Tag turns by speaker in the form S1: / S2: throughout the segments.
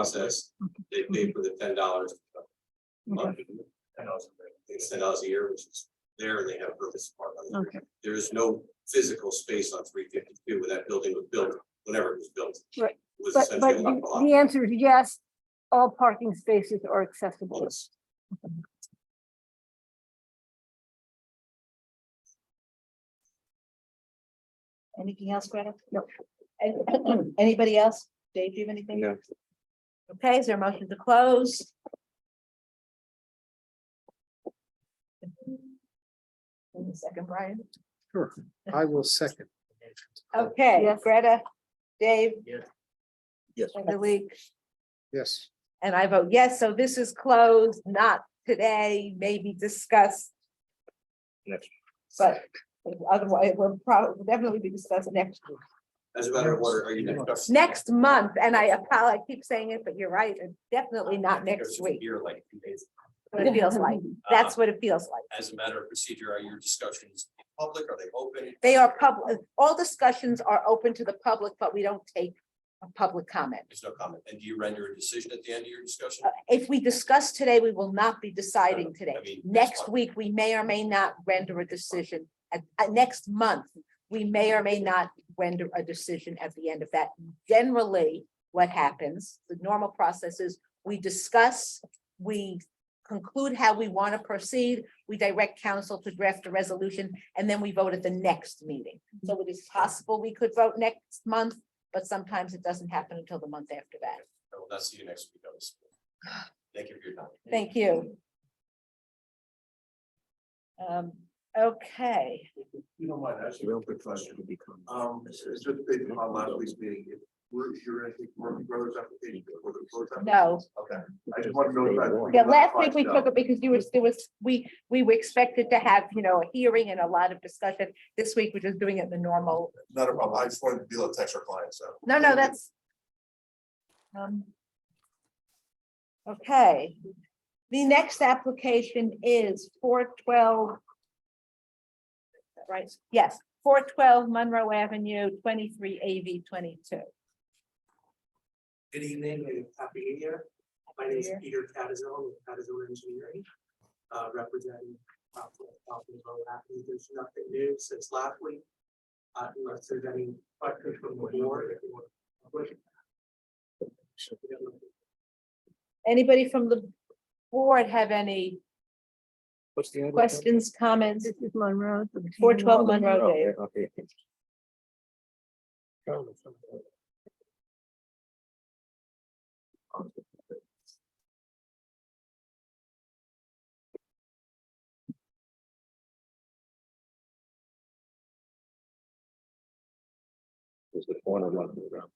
S1: process, they
S2: Mm-hmm.
S1: pay for the ten dollars.
S3: Okay,
S1: It's ten dollars a year, which is there, and they have a purpose part of it.
S3: okay,
S1: There is no physical space on three fifty-two when that building was built, whenever it was built.
S3: Right,
S1: It Was
S3: but,
S1: essentially
S3: but
S1: a lot
S3: the- the answer is yes, all parking spaces are accessible.
S2: Anything else, Greta?
S3: No.
S2: An- Anybody else? Dave, do you have anything? Okay, is there a motion to close? Give me a Second, Brian.
S4: Sure, I will second.
S2: Okay,
S3: Yes.
S2: Greta, Dave,
S5: Yes.
S2: and the week,
S4: Yes,
S2: and I vote yes, so this is closed, not today, maybe discussed.
S5: Next.
S2: But otherwise, we'll probably definitely be discussed next week.
S1: As a matter of order, are you next?
S2: next month, and I apologize, I keep saying it, but you're right, it's definitely not next week,
S1: Here, like, two days. Uh,
S2: what it feels like. That's what it feels like.
S1: As a matter of procedure, are your discussions public? Are they open?
S2: They are public, all discussions are open to the public, but we don't take a public comment.
S1: There's no comment. And do you render a decision at the end of your discussion?
S2: Uh, If we discuss today, we will not be deciding
S1: I
S2: today.
S1: mean, that's
S2: Next
S1: fine.
S2: week, we may or may not render a decision. At, at next month, we may or may not render a decision at the end of that. Generally, what happens, the normal process is we discuss, we conclude how we want to proceed, we direct council to draft a resolution, and then we vote at the next meeting. So it is possible we could vote next month, but sometimes it doesn't happen until the month after that.
S1: I will not see you next week. Otis. Thank you for your time.
S2: Thank you. Um, okay,
S6: If You don't mind, asking
S5: Real good question to become.
S6: um, it's it's just based on last week's meeting, if we're, if you're, I think, Murphy Brothers application. before the close application.
S2: no,
S6: Okay, I just want to know. if that's-
S2: yeah, last week we took it because you was, there was, we, we were expected to have, you know, a hearing and a lot of discussion. This week, we're just doing it the normal,
S6: Not a problem, I just wanted to be able to text our clients, so.
S2: no, no, that's. Um. Okay, the next application is four twelve. Right, yes, four twelve Monroe Avenue, twenty-three AV twenty-two.
S7: Good evening and happy new year. My name is
S2: Year.
S7: Peter Catazella with Catazella Engineering, uh, representing Poplar Avenue. There's nothing new since last week. Uh, Unless there's any questions from the board. if you want to push it.
S2: Anybody from the board have any
S5: What's the?
S2: questions, comments?
S3: This is Monroe.
S2: Four twelve Monroe Dave.
S5: the corner one. to the ground.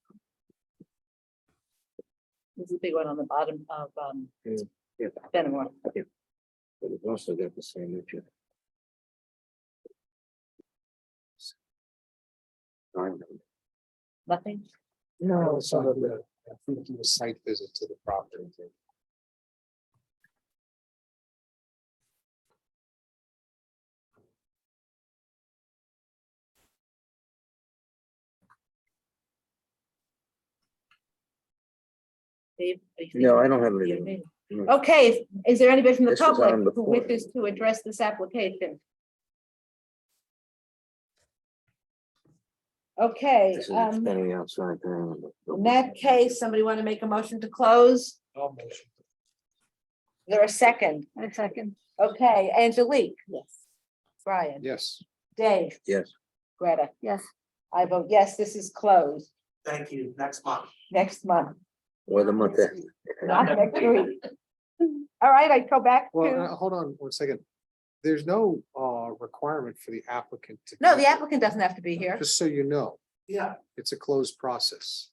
S2: This is the big one on the bottom of, um,
S5: Yeah.
S2: Fenimore.
S5: But it's also got the same issue.
S2: Nothing?
S4: no, some of the, I think it was site visit to the property.
S2: Dave? are you
S5: No, I don't have
S2: thinking of
S5: anything.
S2: me?
S5: No.
S2: Okay, is there anybody from the
S5: This is
S2: public
S5: on the
S2: who
S5: floor.
S2: wishes to address this application? Okay,
S5: This is
S2: um,
S5: extending outside. the-
S2: in that case, somebody want to make a motion to close? Is There a second?
S3: A second.
S2: Okay, Angelique? Yes. Brian?
S4: Yes,
S2: Dave?
S5: Yes.
S2: Greta?
S3: Yes,
S2: I vote yes, this is closed
S7: Thank you. Next month.
S2: next month,
S5: Or the month after.
S2: not next week. All right, I go back
S4: well, uh,
S2: to,
S4: hold on one second. There's no uh requirement for the applicant to.
S2: no,
S4: come.
S2: the applicant doesn't have to be here.
S4: Just so you know,
S7: Yeah.
S4: it's a closed process.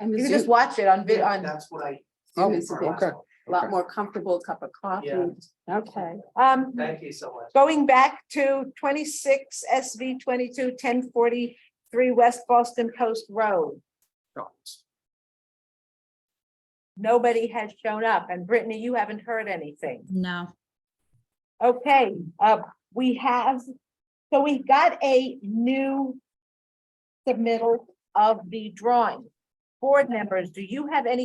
S2: You can just watch it on vid,
S7: yeah,
S2: on,
S7: That's what I.
S4: Oh,
S7: did for last
S4: okay.
S7: month.
S4: Lot more.
S7: Yeah.
S2: okay. Um,
S7: Thank you so much.
S2: going back to twenty-six SV twenty-two ten forty-three West Boston Post Road. Nobody has shown up, and Brittany, you haven't heard anything.
S8: No,
S2: Okay, uh, we have, so we got a new submittal of the drawing. Board members, do you have any